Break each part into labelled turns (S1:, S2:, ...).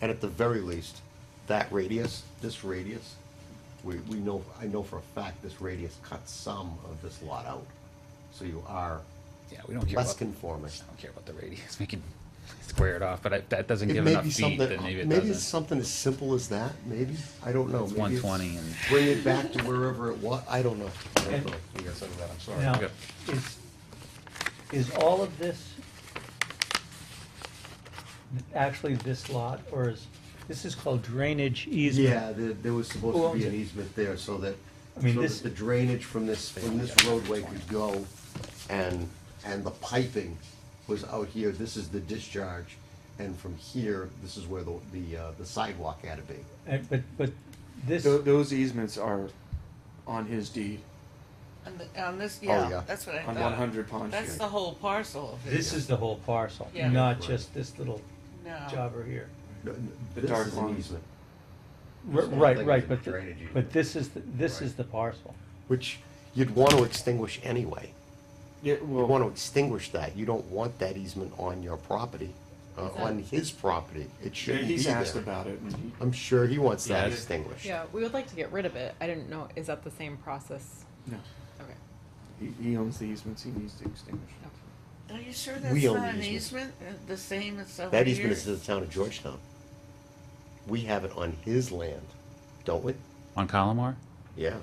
S1: And at the very least, that radius, this radius, we, we know, I know for a fact this radius cuts some of this lot out. So you are
S2: Yeah, we don't care
S1: less
S2: about, I
S1: conforming.
S2: don't care about the radius, we can square it off, but I- if that doesn't
S1: It
S2: give
S1: may
S2: enough
S1: be
S2: feet,
S1: something,
S2: then maybe it
S1: maybe it's
S2: doesn't.
S1: something as simple as that, maybe, I don't know.
S2: It's
S1: Maybe
S2: one twenty and,
S1: Bring it back to wherever it was, I don't know. I don't
S3: And-
S1: know. You guys said that, I'm sorry.
S3: Now,
S2: Okay.
S3: is, is all of this actually this lot, or is, this is called drainage easement?
S1: Yeah, there, there was supposed
S3: Who
S1: to
S3: owns
S1: be an
S3: it?
S1: easement there so that,
S3: I
S1: so
S3: mean, this-
S1: that the drainage from this, from this roadway could go and, and the piping was out here, this is the discharge, and from here, this is where the, the, uh, the sidewalk had to be.
S3: And- But, but this,
S4: Tho- those easements are on his deed,
S5: On, the, on this, yeah,
S1: Oh, yeah.
S5: that's what I
S4: on
S5: thought.
S4: one hundred Pond
S5: That's
S4: Street.
S5: the whole parcel. of it.
S3: this is the whole parcel,
S5: Yeah.
S3: not
S1: Right.
S3: just this little
S5: No.
S3: jobber here.
S1: No, no,
S4: The
S1: this
S4: dark
S1: is an
S4: lines.
S1: easement,
S3: R-
S1: This whole thing
S3: Right,
S1: is a
S3: right, but, th-
S1: drainage easement.
S3: but this is, the- this is
S1: Right.
S3: the parcel.
S1: Which you'd want to extinguish anyway.
S4: Yeah,
S1: You want to
S4: well,
S1: extinguish that, you don't want that easement on your property, uh, on his property, it shouldn't be
S4: he's asked
S1: there.
S4: about it, and he,
S1: I'm sure he wants that
S2: Yeah.
S1: extinguished.
S6: Yeah, we would like to get rid of it. I didn't know, is that the same process?
S4: no,
S6: Okay.
S4: he, he owns the easements, he needs to extinguish.
S5: Are you sure that's
S1: We own
S5: not an
S1: the
S5: easement? Uh, The same as over
S1: That easement
S5: here?
S1: is to the town of Georgetown. We have it on his land, don't we?
S2: on Collimore?
S1: Yeah.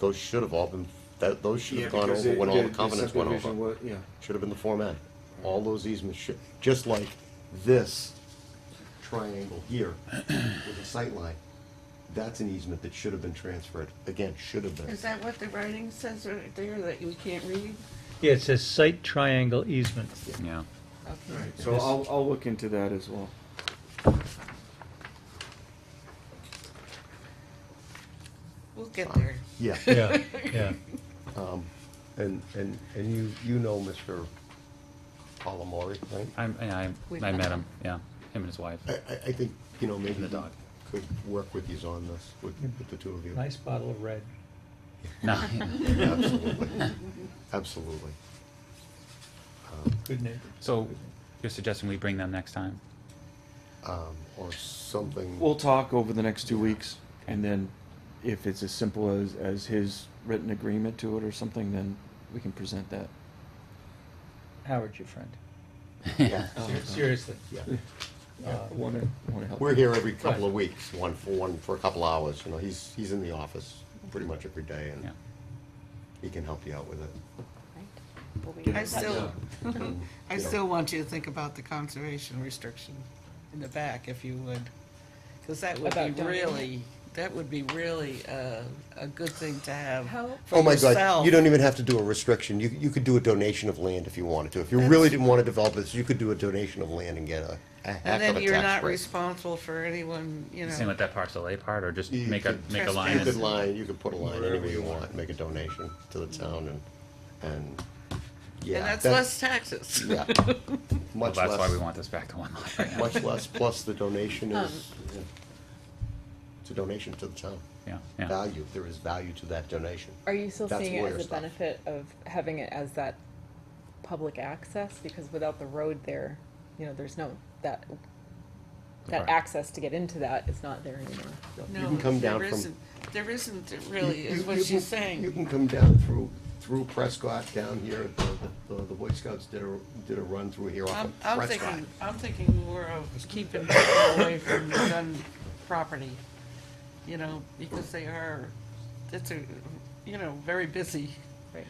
S1: Those should have all been, that, those should
S4: Yeah,
S1: have gone
S4: because
S1: over
S4: it-
S1: when all the
S4: the
S1: covenants went
S4: subdivision
S1: over.
S4: wa- Yeah,
S1: Should have been the Form A. All those easements should, just like this triangle here with the sight line. That's an easement that should have been transferred. Again, should have been.
S5: Is that what the writing says right there that we can't read?
S3: Yeah, it says site triangle easement.
S2: Yeah.
S5: Okay.
S4: so I'll, I'll look into that as well.
S5: We'll get there.
S1: Yeah.
S3: Yeah, yeah.
S1: And, and, and you, you know Mr. Palomari, right?
S2: I'm, and I,
S6: We've
S2: I
S6: met
S2: met him,
S6: him.
S2: yeah, him and his wife.
S1: I, I, I think, you know, maybe
S2: the dog.
S1: could work with you on this, with, with the two of you.
S3: Nice bottle of red.
S2: No,
S1: Absolutely. Absolutely.
S3: Good neighbor.
S2: so you're suggesting we bring them next time?
S1: Um, or something.
S4: We'll talk over the next two weeks, and then if it's as simple as, as his written agreement to it or something, then we can present that.
S3: Howard, your friend.
S1: yeah,
S3: Ser- Seriously.
S1: yeah.
S3: Uh,
S4: Wanna, wanna help.
S1: We're here every couple of weeks, one for, one for a couple hours, you know, he's, he's in the office pretty much every day
S2: Yeah.
S1: and he can help you out with it.
S6: Right. We'll be in
S5: I
S6: touch.
S5: still,
S1: And,
S5: I
S1: you know,
S5: still want you to think about the conservation restriction in the back, if you would. Because that would
S6: About
S5: be
S6: donating?
S5: really, that would be really uh, a good thing to have
S6: How-
S5: for
S1: Oh my God,
S5: yourself.
S1: you don't even have to do a restriction, you, you could do a donation of land if you wanted to. If you really didn't wanna develop this, you could do a donation of land and get a, a
S5: And
S1: heck of
S5: then
S1: a
S5: you're not
S1: tax break.
S5: responsible for anyone, you
S2: Same
S5: know.
S2: with that parcel A part, or just
S1: You
S2: make a,
S1: could-
S2: make a
S1: You
S2: line?
S1: could
S2: and-
S1: line, you could put a line anywhere
S7: Wherever you
S1: you want, make a donation to the town and, and, yeah.
S5: And that's
S1: that-
S5: less taxes.
S1: Yeah.
S2: Well,
S1: Much less.
S2: that's why we want this back to one lot right now.
S1: Much less, plus the donation
S5: Um,
S1: is, it's a donation to the town.
S2: Yeah, yeah.
S1: Value, there is value to that donation.
S6: Are you still
S1: That's
S6: seeing it
S1: lawyer
S6: as a
S1: stuff.
S6: benefit of having it as that public access? Because without the road there, you know, there's no, that, that
S2: Right.
S6: access to get into that is not there anymore.
S1: You can come
S5: there
S1: down from-
S5: isn't- There isn't, really,
S1: You-
S5: is
S1: you-
S5: what
S1: you
S5: she's
S1: can- You
S5: saying.
S1: can come down through, through Prescott, down here, at the, the, the Boy Scouts did a, did a run through here off
S5: I'm,
S1: of
S5: I'm
S1: Prescott.
S5: thinking, I'm thinking more of keeping people away from the gun property, you know, because they are, it's a, you know, very busy
S6: Right.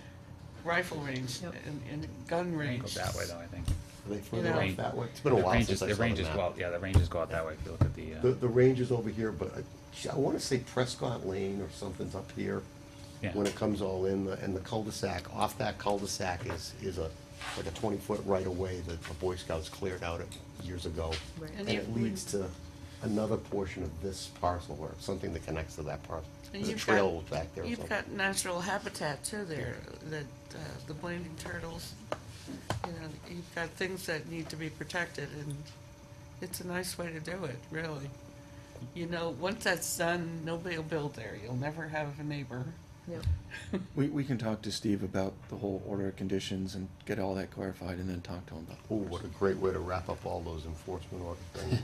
S5: rifle range
S6: Yep.
S5: and, and gun
S2: Angled
S5: range.
S2: that way though, I think.
S1: Are they
S5: you
S1: further
S5: know.
S1: off that way? It's been a
S2: The
S1: while
S2: ranges,
S1: since I
S2: the
S1: saw the
S2: ranges go
S1: map.
S2: out, yeah, the ranges go out that way if you look at the,
S1: The,
S2: uh,
S1: the range is over here, but I, gee, I wanna say Prescott Lane or something's up here.
S2: Yeah.
S1: When it comes all in, the- and the cul-de-sac, off that cul-de-sac is, is a, like a twenty-foot right-of-way that the Boy Scouts cleared out it years ago.
S6: Right.
S1: And
S5: And
S1: it
S5: you-
S1: leads to another portion of this parcel or something that connects to that parcel.
S5: And
S1: There's a
S5: you've
S1: trail
S5: got-
S1: back there or
S5: You've
S1: something.
S5: got natural habitat too there, that, uh, the blending turtles, you know, you've got things that need to be protected and it's a nice way to do it, really. You know, once that's done, nobody will build there, you'll never have a neighbor.
S6: Yeah.
S4: We, we can talk to Steve about the whole order of conditions and get all that clarified and then talk to him about.
S1: Oh, what a great way to wrap up all those enforcement order things.